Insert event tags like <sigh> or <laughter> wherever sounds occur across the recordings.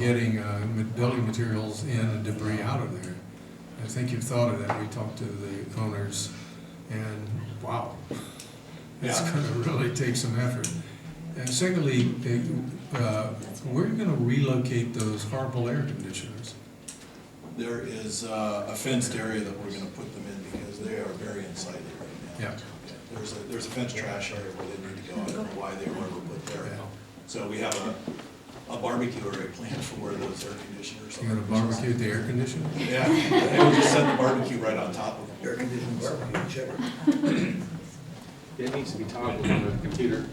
getting uh, ma- building materials in and debris out of there. I think you've thought of that. We talked to the owners, and wow, <laughs> it's Yeah. going to really take some effort. And secondly, eh, uh, where are you going to relocate those horrible air conditioners? There is uh, a fenced area that we're gonna put them in because they are very unsightly right now. Yeah. There's a, there's a fenced trash area where they need to go, I don't know why they were ever put there. Yeah. So we have a, a barbecue area planned for where those air conditioners are. You going to barbecue the air conditioner? Yeah, they would just set the barbecue right on top of them. Air conditioned barbecue, whichever. It needs to be toggled on the computer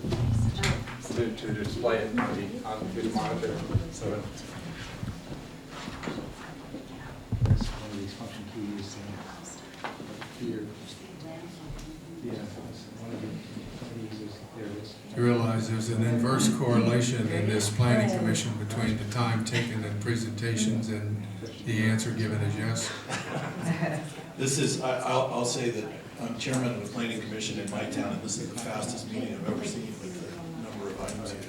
to, to display it on the, on the monitor, so it That's one of these function keys, and here, yeah, so it's one of the, one of these is, there it is. You realize there's an inverse correlation in this planning commission between the time taken in presentations and the answer given as yes? This is, I, I'll, I'll say that I'm chairman of the planning commission in my town, and this is the fastest meeting I've ever seen with the number of items you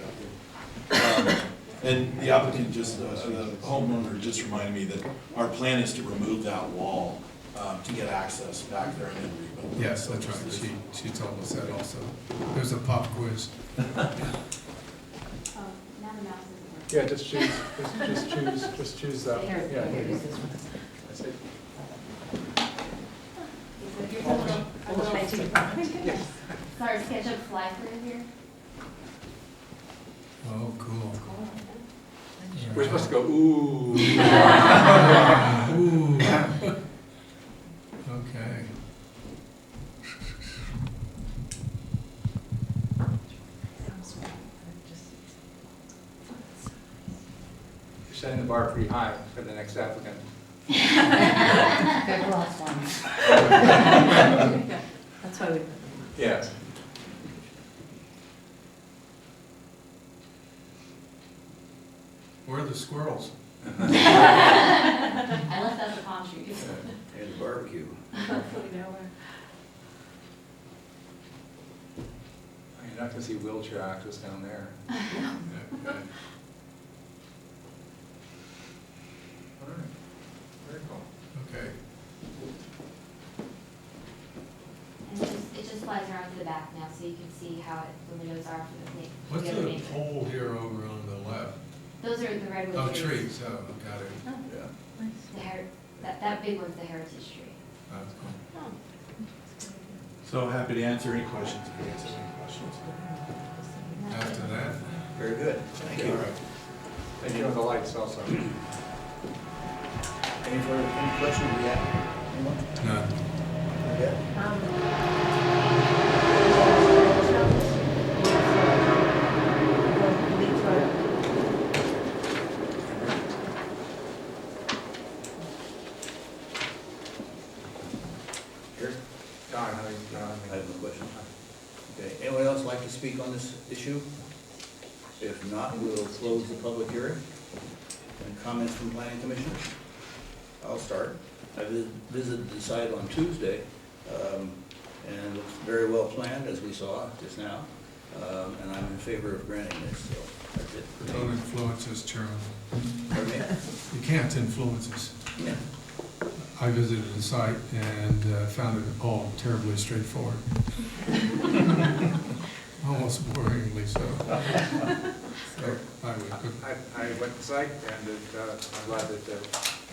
have. Um, And the applicant just, uh, the homeowner just reminded me that our plan is to remove that wall, um, to get access back there and then rebuild. Yes, that's right, she, she told us that also. There's a pop quiz. Oh, now the mouse isn't working. Yeah, just choose, just, just choose, just choose that, Here, yeah. here, use this one. That's it. Here's a little- a little- Sorry, scheduled fly through here. Oh, cool. We're supposed to go, ooh. <laughs> Ooh. Okay. You're setting the bar pretty high for the next applicant. Good last one. That's why we. Yes. Where are the squirrels? I left out the palm trees. And barbecue. Hopefully nowhere. You're not gonna see wheelchair access down there. Okay. All right, very cool. Okay. And it just, it just flies around to the back now, so you can see how it, the windows are for the What's main, the other the main. pole here over on the left? Those are the Oh, redwood trees. trees, oh, got it. Yeah. The her, that, that big one's the heritage tree. That's cool. So happy to answer any questions, if you guys have any questions. After that, Very good. Thank you. All right. And you know the lights also. Any further any questions we have? Anyone? none. Yeah. Here? Don, how do you, Don? I have no question. Okay, anyone else like to speak on this issue? If not, we will close the public hearing. And comments from planning commission? I'll start. I vis- visited the site on Tuesday, um, and it looks very well planned, as we saw just now. Um, and I'm in favor of granting this, so that's it for Don't me. influence us, Chairman. Pardon me? You can't influence us. Yeah. I visited the site and uh, found it all terribly straightforward. <laughs> Almost boringly so. So I would, I, I went to site and it, uh, I'm glad that, uh,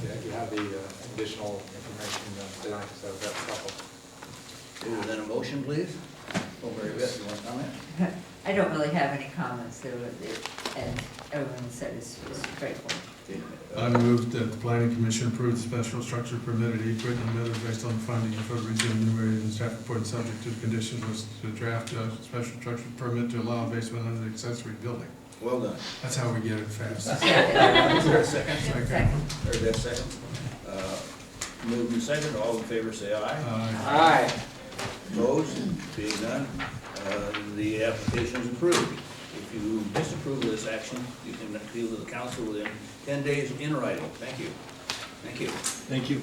that you have the uh, additional information uh, tonight, so that's helpful. Is that a motion, please? Oh, very good, you want to comment? I don't really have any comments, there were, there- and everyone said it's it's straightforward. Okay, uh, I moved that the planning commission approve the special structure permitted equipment and others based on finding of further reasons enumerated in the staff report subject to the conditions was to draft a special structure permit to allow basement under an accessory building. Well done. That's how we get it fast. Is there a second? Second. Heard that second? Uh, Moved and second, all in favor say aye. Uh, Aye. Opposed, being none, uh, the application is approved. If you disapprove of this action, you can appeal to the council within 10 days in writing. Thank you. Thank you. Thank you.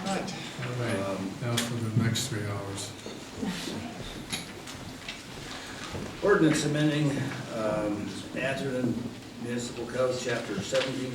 all right, Now for the next three hours. Ordinance amending um, Atherton Municipal Code, Chapter seventeen